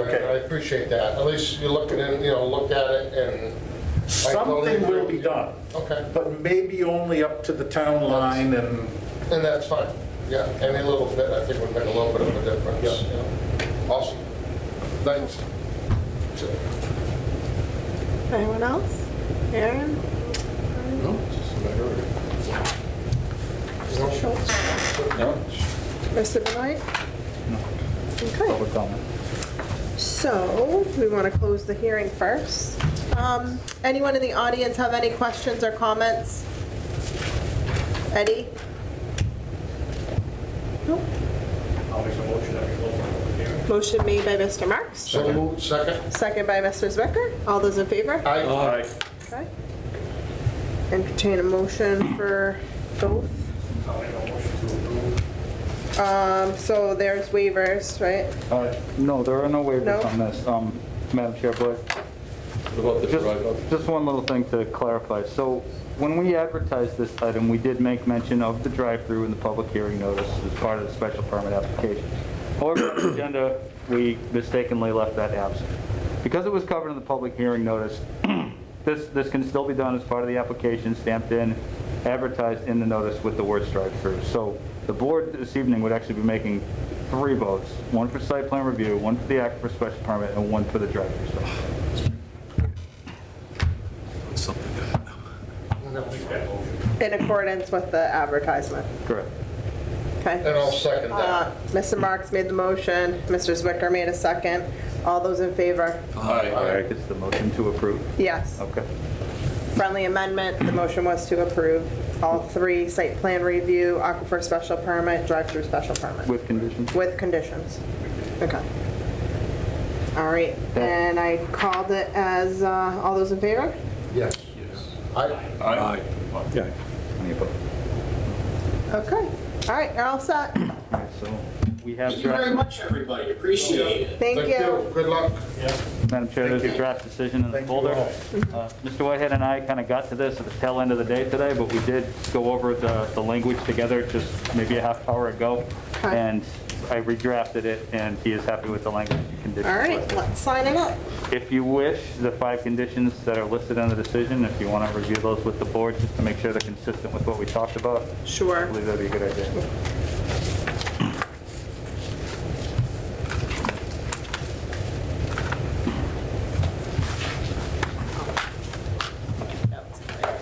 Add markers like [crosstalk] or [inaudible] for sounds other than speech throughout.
I appreciate that. At least you look at it, you know, look at it and. I totally Something agree will with be you. done, Okay, but maybe only up to the town line and, and that's fine. Yeah, any little bit, I think would make a little bit of a difference. Yeah. Awesome. Thanks. Anyone else? Aaron? No, it's just a matter of- Mr. Schultz? Mr. Benoit? Okay, public comment. so we want to close the hearing first. Um, Anyone in the audience have any questions or comments? Eddie? Nope. I'll make a motion that we close our public hearing. Motion made by Mr. Marks, So moved, second? second by Mr. Zwicker. All those in favor? Aye. Aye. Okay. Entertain a motion for both. I'll make a motion to approve. Um, So there's waivers, right? Uh, No, there are no No? waivers on this, um, Madam Chair, but What about the driveway? just, just one little thing to clarify. So when we advertised this item, we did make mention of the drive-through in the public hearing notice as part of the special permit application. However, on the agenda, we mistakenly left that absent. Because it was covered in the public hearing notice, [clears throat] this, this can still be done as part of the application, stamped in, advertised in the notice with the word drive-through. So the board this evening would actually be making three votes, one for site plan review, one for the act for special permit, and one for the drive-through special permit. No. Make that motion. In accordance with the advertisement, Correct. And okay? I'll second Uh, that. Mr. Marks made the motion, Mr. Zwicker made a second. All those in favor? Aye. Aye. It's the motion to approve. Yes. Okay. Friendly amendment, the motion was to approve all three, site plan review, aquifer special permit, drive-through special permit, With conditions? with conditions. Okay. All right, and I called it as, uh, all those in favor? Yes. Aye. Aye. yeah, Any opposed? Okay, all right, you're all set. All right, so we have Thank you very draft, much, everybody. Appreciate it. Thank you. Good luck. Madam Chair, there's a draft decision in the folder. Uh, Mr. Whitehead and I kind of got to this at the tail end of the day today, but we did go over the, the language together just maybe a half hour ago. Okay. And I redrafted it and he is happy with the language and conditions. All right, listed. let's sign it up. If you wish, the five conditions that are listed in the decision, if you want to review those with the board just to make sure they're consistent with what we talked about, I Sure. believe that'd be a good idea.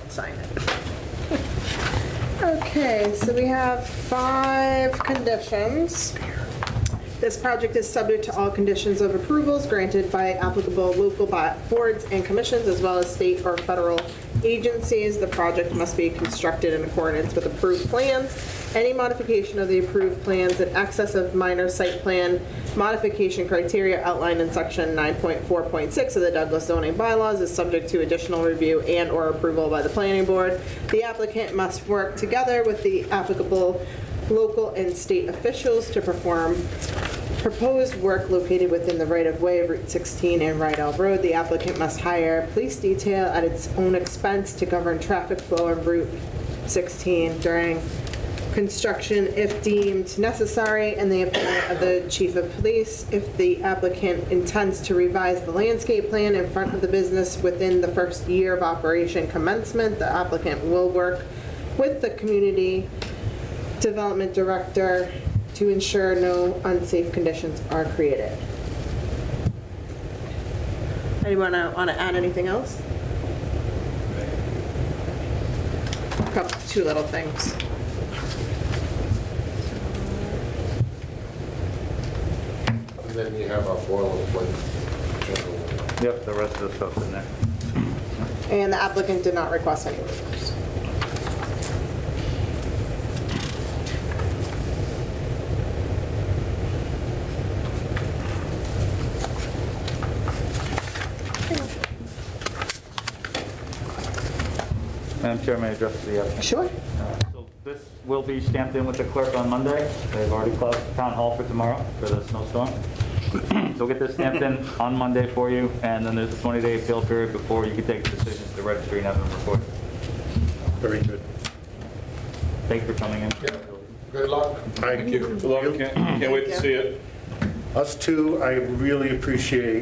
Sign it. [laughs] Okay, so we have five conditions. This project is subject to all conditions of approvals granted by applicable local bo- boards and commissions, as well as state or federal agencies. The project must be constructed in accordance with approved plans. Any modification of the approved plans in excess of minor site plan modification criteria outlined in section 9.4.6 of the Douglas zoning bylaws is subject to additional review and/or approval by the planning board. The applicant must work together with the applicable local and state officials to perform proposed work located within the right-of-way of Route 16 and Rydell Road. The applicant must hire police detail at its own expense to govern traffic flow on Route 16 during construction if deemed necessary, and the appointment of the chief of police if the applicant intends to revise the landscape plan in front of the business within the first year of operation commencement. The applicant will work with the community development director to ensure no unsafe conditions are created. Anyone want to add anything else? Couple, two little things. And then you have our boilerplate. Yep, the rest of the stuff's in there. And the applicant did not request any waivers. Madam Chair, may I address the applicant? Sure. Uh, So this will be stamped in with the clerk on Monday. They've already closed the town hall for tomorrow for the snowstorm. [clears throat] So we'll get this stamped in on Monday for you, and then there's a 20-day appeal period before you can take the decision to the registry and have them recorded. very good. Thank you for coming in. Good luck. Thank you. Love it, can't, can't wait to see it. Us two, I really appreciate